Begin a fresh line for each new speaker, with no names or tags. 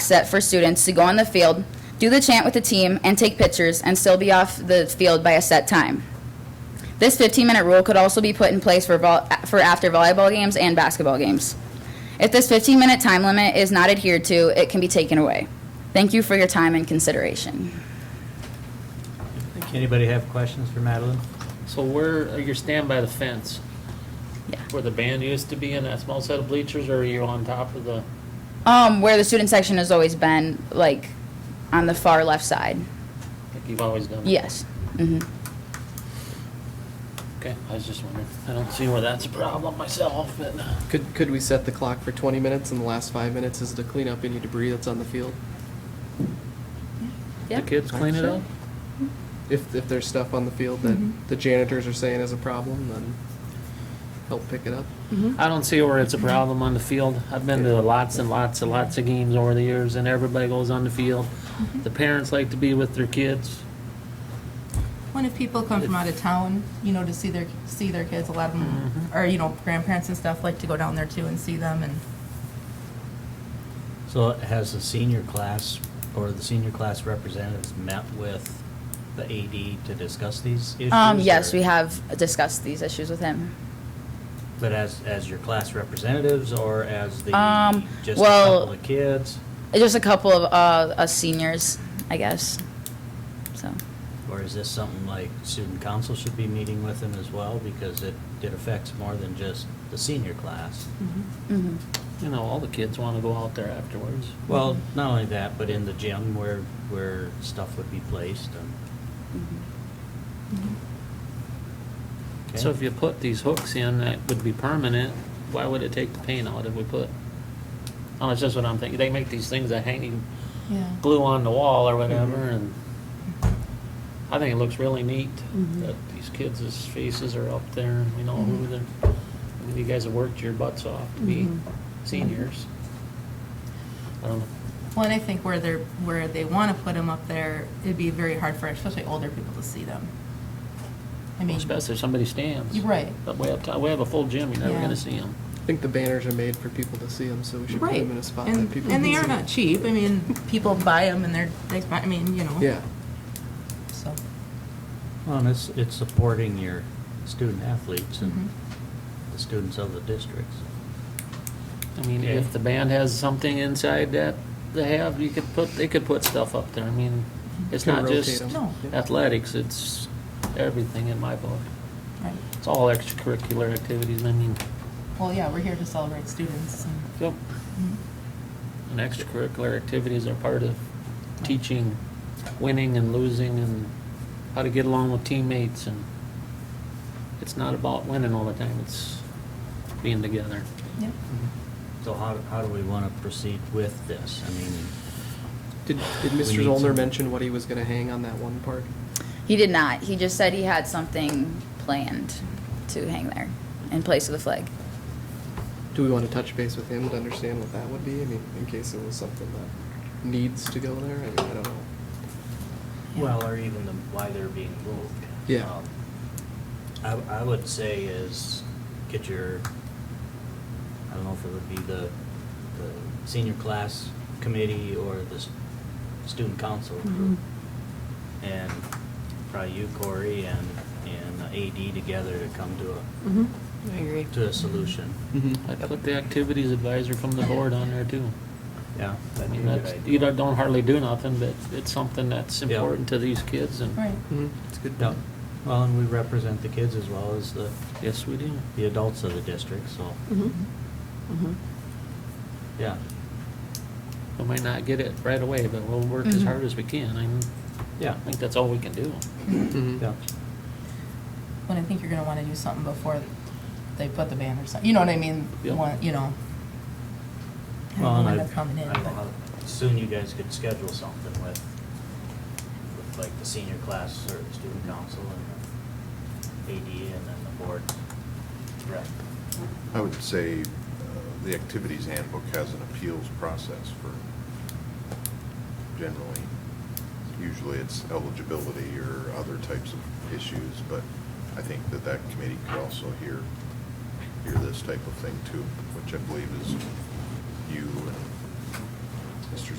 set for students to go on the field, do the chant with the team, and take pictures, and still be off the field by a set time. This 15-minute rule could also be put in place for, vol- for after volleyball games and basketball games. If this 15-minute time limit is not adhered to, it can be taken away. Thank you for your time and consideration.
Anybody have questions for Madeline?
So where, you stand by the fence?
Yeah.
Where the band used to be in that small set of bleachers, or are you on top of the,
Um, where the student section has always been, like, on the far left side.
like you've always done?
Yes. hmm
Okay, I was just wondering. I don't see where that's a problem myself, but
Could, could we set the clock for 20 minutes and the last five minutes is to clean up any debris that's on the field?
the
Yep.
kids clean it up?
If, if there's stuff on the field that
Mm-hmm.
the janitors are saying is a problem, then help pick it up.
I don't see where it's a problem on the field. I've been to lots and lots and lots of games over the years, and everybody goes on the field.
Mm-hmm.
The parents like to be with their kids.
When if people come from out of town, you know, to see their, see their kids, a lot of
Mm-hmm.
them, or, you know, grandparents and stuff like to go down there too and see them and.
So has the senior class or the senior class representatives met with the AD to discuss these issues?
Um, yes,
or-
we have discussed these issues with him.
But as, as your class representatives or as the,
Um,
just a
well-
couple of kids?
Just a couple of uh, us seniors, I guess. So,
Or is this something like student council should be meeting with them as well? Because it, it affects more than just the senior class.
Mm-hmm.
hmm
You know, all the kids want to go out there afterwards.
Well, not only that, but in the gym where, where stuff would be placed and.
mm-hmm.
Mm-hmm.
Okay.
So if you put these hooks in, that would be permanent, why would it take the paint out if we put? Oh, that's just what I'm thinking, they make these things that hang, you
Yeah.
glue on the wall or whatever, and I think it looks really neat
Mm-hmm.
that these kids' faces are up there, and we know who they're, I mean, you guys have worked your butts off to be
Mm-hmm.
seniors. I don't know,
Well, and I think where they're, where they want to put them up there, it'd be very hard for especially older people to see them. I mean,
especially if somebody stands.
you're right.
But we have, to- we have a full gym, you're never
Yeah.
gonna see them.
I think the banners are made for people to see them, so we should put
Right.
them in a spot that
And,
people
and
can
they are
see.
not cheap. I mean, people buy them and they're, they, buy- I mean, you know.
Yeah,
So,
Well, and it's, it's supporting your student athletes
mhm.
and the students of the districts.
I mean,
Okay.
if the band has something inside that they have, you could put, they could put stuff up there. I mean, it's
Could
not
rotate
just
'em.
No.
Yeah.
athletics, it's everything in my book.
right.
It's all extracurricular activities, I mean,
Well, yeah, we're here to celebrate students and. Mm-hmm.
yep. And extracurricular activities are part of teaching winning and losing and how to get along with teammates and it's not about winning all the time, it's being together.
Yep.
Mm-hmm.
So how, how do we want to proceed with this? I mean,
Did, did
We
Mr.
need
Zollner
some-
mention what he was gonna hang on that one part?
He did not. He just said he had something planned to hang there in place of the flag.
Do we wanna touch base with him to understand what that would be? I mean, in case it was something that needs to go there, I mean, I don't know.
Well, or even the, why they're being moved.
Yeah.
Um,
I, I would say is get your, I don't know if it would be the, the senior class committee or the s- student council group.
Mm-hmm.
And probably you, Corey, and, and AD together to come to a,
Mm-hmm. I agree.
to a solution. Mm-hmm.
I put the activities advisor from the board on there too.
Yeah,
I
that'd be a
mean,
good
that's,
idea.
you don't don't hardly do nothing, but it's something that's
Yeah.
important to these kids and,
Right.
Mhm, It's good.
Yeah. Well, and we represent the kids as well as the,
yes, we do.
the adults of the district, so,
Mm-hmm.
Mm-hmm.
yeah.
We might not get it right away, but we'll work as
Mhm.
hard as we can. I mean,
Yeah,
I think that's all we can do.
Mhm.
yeah.
But I think you're gonna wanna do something before they put the ban or something, you know what I mean?
Yep.
Want- You know. I
Well, and
don't know when
I-
they're coming in,
I don't
but-
know how Soon you guys could schedule something with, with like the senior class or the student council and the AD and then the board rep.
I would say uh, the activities handbook has an appeals process for generally, usually it's eligibility or other types of issues, but I think that that committee could also hear, hear this type of thing too, which I believe is you and Mr.